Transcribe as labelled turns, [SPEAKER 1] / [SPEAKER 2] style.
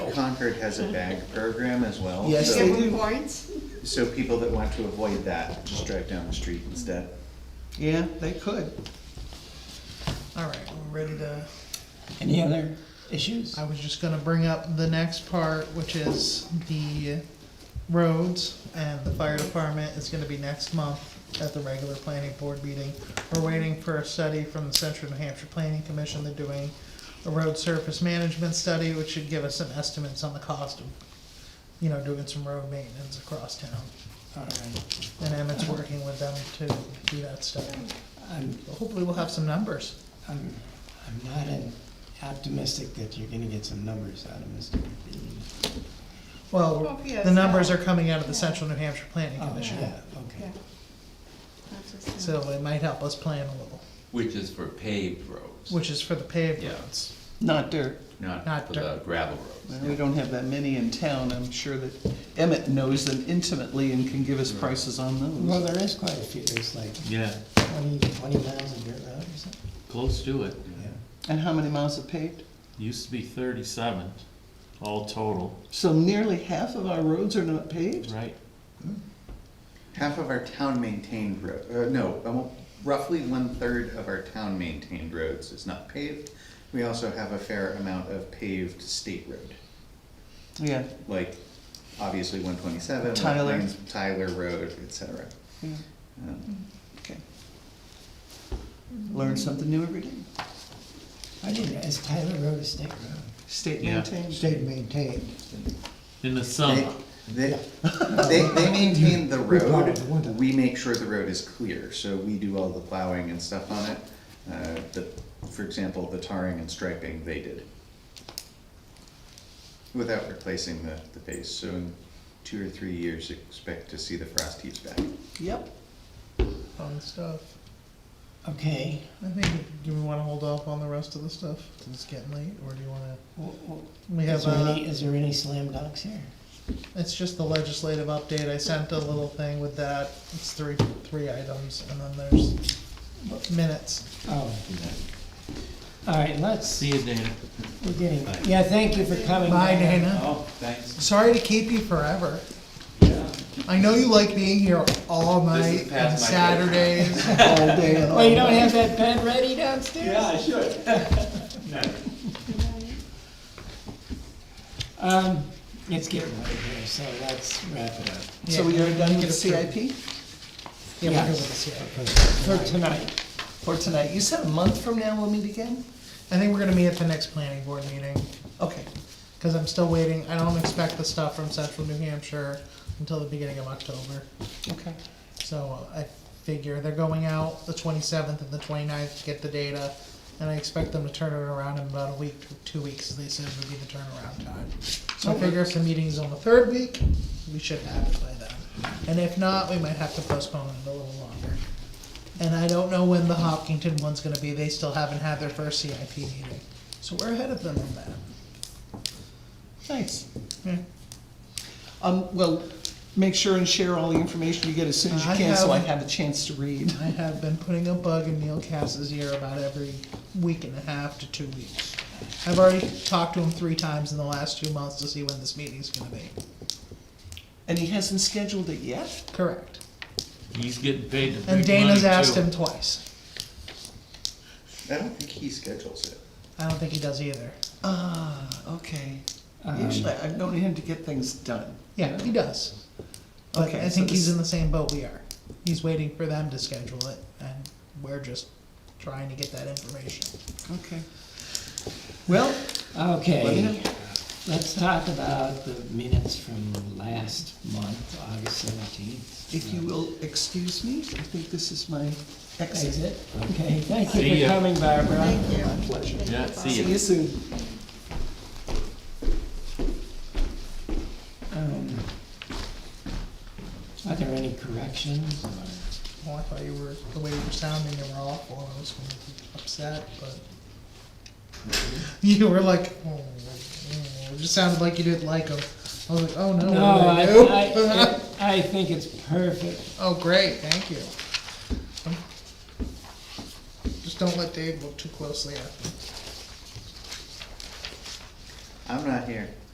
[SPEAKER 1] Concord has a bag program as well.
[SPEAKER 2] Yes,
[SPEAKER 1] so-
[SPEAKER 2] they
[SPEAKER 3] Give
[SPEAKER 2] do.
[SPEAKER 3] them points?
[SPEAKER 1] So people that want to avoid that, just drive down the street instead.
[SPEAKER 2] Yeah, they could. All right, we're ready to,
[SPEAKER 4] Any other issues?
[SPEAKER 2] I was just gonna bring up the next part, which is the roads, and the fire department is gonna be next month at the regular planning board meeting. We're waiting for a study from the Central New Hampshire Planning Commission, they're doing a road surface management study, which should give us some estimates on the cost of, you know, doing some road maintenance across town.
[SPEAKER 4] All right,
[SPEAKER 2] And Emmett's working with them to do that study.
[SPEAKER 4] I'm,
[SPEAKER 2] So Hopefully we'll have some numbers.
[SPEAKER 4] I'm, I'm not an- optimistic that you're gonna get some numbers out of Mr. McBean.
[SPEAKER 2] Well,
[SPEAKER 3] Well, yes,
[SPEAKER 2] Oh, the numbers
[SPEAKER 3] yeah.
[SPEAKER 2] are coming out of the
[SPEAKER 3] Yeah.
[SPEAKER 2] Central New Hampshire Planning
[SPEAKER 4] Oh,
[SPEAKER 2] Commission,
[SPEAKER 4] yeah, okay.
[SPEAKER 3] Yeah. That's just-
[SPEAKER 2] so it might help us plan a little,
[SPEAKER 5] Which is for paved roads.
[SPEAKER 2] which is for the paved
[SPEAKER 5] Yeah.
[SPEAKER 2] roads.
[SPEAKER 6] Not dirt.
[SPEAKER 5] Not
[SPEAKER 2] not
[SPEAKER 5] for the
[SPEAKER 2] dirt.
[SPEAKER 5] uh, gravel roads.
[SPEAKER 6] Well, We don't have that many in town. I'm sure that Emmett knows them intimately and can give us prices on
[SPEAKER 4] Well,
[SPEAKER 6] those.
[SPEAKER 4] there is quite a few, there's like
[SPEAKER 7] Yeah,
[SPEAKER 4] twenty, twenty miles of dirt road or something.
[SPEAKER 7] close to it.
[SPEAKER 6] And how many miles it paved?
[SPEAKER 7] Used to be thirty-seven, all total,
[SPEAKER 6] So nearly half of our roads are not paved?
[SPEAKER 7] right?
[SPEAKER 1] Half of our town maintained road, uh, no, um, roughly one-third of our town maintained roads is not paved. We also have a fair amount of paved state road,
[SPEAKER 6] Yeah,
[SPEAKER 1] like obviously one twenty-seven.
[SPEAKER 6] Tyler.
[SPEAKER 1] Tyler Road, et cetera.
[SPEAKER 6] yeah,
[SPEAKER 1] Um,
[SPEAKER 6] okay. Learn something new every day.
[SPEAKER 4] I didn't, is Tyler Road a state road?
[SPEAKER 6] State
[SPEAKER 7] Yeah.
[SPEAKER 6] maintained.
[SPEAKER 4] State maintained.
[SPEAKER 7] In the
[SPEAKER 1] They,
[SPEAKER 7] summer,
[SPEAKER 1] they, they, they maintain the
[SPEAKER 4] We plow it
[SPEAKER 1] road,
[SPEAKER 4] in the winter.
[SPEAKER 1] we make sure the road is clear, so we do all the plowing and stuff on it. Uh, the, for example, the tarring and striping, they did. Without replacing the, the base, so in two or three years, expect to see the frost heaves back.
[SPEAKER 6] Yep.
[SPEAKER 2] Fun stuff.
[SPEAKER 4] Okay,
[SPEAKER 2] I think, do we wanna hold off on the rest of the stuff, since it's getting late, or do you wanna?
[SPEAKER 4] w- w-
[SPEAKER 2] We
[SPEAKER 4] is
[SPEAKER 2] have,
[SPEAKER 4] there
[SPEAKER 2] uh,
[SPEAKER 4] any, is there any slam dunks here?
[SPEAKER 2] it's just the legislative update, I sent a little thing with that, it's three, three items, and then there's minutes.
[SPEAKER 4] Oh, all right, let's
[SPEAKER 7] see
[SPEAKER 4] see,
[SPEAKER 7] you, Dana.
[SPEAKER 4] we're getting, yeah, thank you for coming.
[SPEAKER 2] Bye, Dana.
[SPEAKER 5] Oh, thanks.
[SPEAKER 2] Sorry to keep you forever. I know you like being here all
[SPEAKER 5] This is
[SPEAKER 2] night and
[SPEAKER 5] past my bedtime.
[SPEAKER 2] Saturdays.
[SPEAKER 6] All day and all
[SPEAKER 4] Oh, you don't have that pen ready downstairs?
[SPEAKER 5] I should.
[SPEAKER 4] Um, it's getting late here, so let's wrap it up
[SPEAKER 6] So we are done with the CIP
[SPEAKER 2] Yeah, we're
[SPEAKER 4] Yeah.
[SPEAKER 2] good with the CIP.
[SPEAKER 4] for tonight.
[SPEAKER 6] for tonight. You said a month from now we'll meet again?
[SPEAKER 2] I think we're gonna meet at the next planning board meeting,
[SPEAKER 6] Okay,
[SPEAKER 2] cause I'm still waiting, I don't expect the stuff from central New Hampshire until the beginning of October.
[SPEAKER 6] okay.
[SPEAKER 2] So I figure they're going out the twenty-seventh and the 29th to get the data, and I expect them to turn it around in about a week, two weeks, they said would be the turnaround time. So I figure if the meeting's on the third week, we should have it by then. And if not, we might have to postpone it a little longer. And I don't know when the Hopkinton one's gonna be, they still haven't had their first CIP meeting, so we're ahead of them on that.
[SPEAKER 6] Nice.
[SPEAKER 2] Yeah.
[SPEAKER 6] Um, well, make sure and share all the information you get as soon as you
[SPEAKER 2] I
[SPEAKER 6] can, so I
[SPEAKER 2] have-
[SPEAKER 6] have a chance to read.
[SPEAKER 2] I have been putting a bug in Neil Cass's ear about every week and a half to two weeks. I've already talked to him three times in the last two months to see when this meeting's gonna be.
[SPEAKER 6] And he hasn't scheduled it yet?
[SPEAKER 2] Correct.
[SPEAKER 7] He's getting paid the big
[SPEAKER 2] And Dana's
[SPEAKER 7] money,
[SPEAKER 2] asked
[SPEAKER 7] too.
[SPEAKER 2] him twice.
[SPEAKER 1] I don't think he schedules it.
[SPEAKER 2] I don't think he does either.
[SPEAKER 6] Ah, okay.
[SPEAKER 4] Um,
[SPEAKER 6] Usually, I've known him to get things done.
[SPEAKER 2] Yeah, he does. But
[SPEAKER 6] Okay,
[SPEAKER 2] I
[SPEAKER 6] so
[SPEAKER 2] think he's
[SPEAKER 6] this-
[SPEAKER 2] in the same boat we are. He's waiting for them to schedule it, and we're just trying to get that information.
[SPEAKER 6] Okay. Well,
[SPEAKER 4] Okay, let's talk about the minutes from last month, August seventeenth.
[SPEAKER 6] if you will excuse me, I think this is my exit.
[SPEAKER 4] Exit, okay, thank you
[SPEAKER 7] See
[SPEAKER 4] for
[SPEAKER 7] ya.
[SPEAKER 4] coming, Barbara.
[SPEAKER 3] Thank you.
[SPEAKER 6] My pleasure.
[SPEAKER 7] Yeah, see
[SPEAKER 6] See
[SPEAKER 7] ya.
[SPEAKER 6] you soon.
[SPEAKER 4] Um, Are there any corrections or?
[SPEAKER 2] Well, I thought you were, the way you were sounding, you were awful, I was gonna be upset, but. You were like, oh, oh," it just sounded like you didn't like him. I was like, oh no, what
[SPEAKER 4] No, I,
[SPEAKER 2] did I do?
[SPEAKER 4] I, I think it's perfect.
[SPEAKER 2] Oh, great, thank you. Just don't let Dave look too closely at them.
[SPEAKER 1] I'm not here.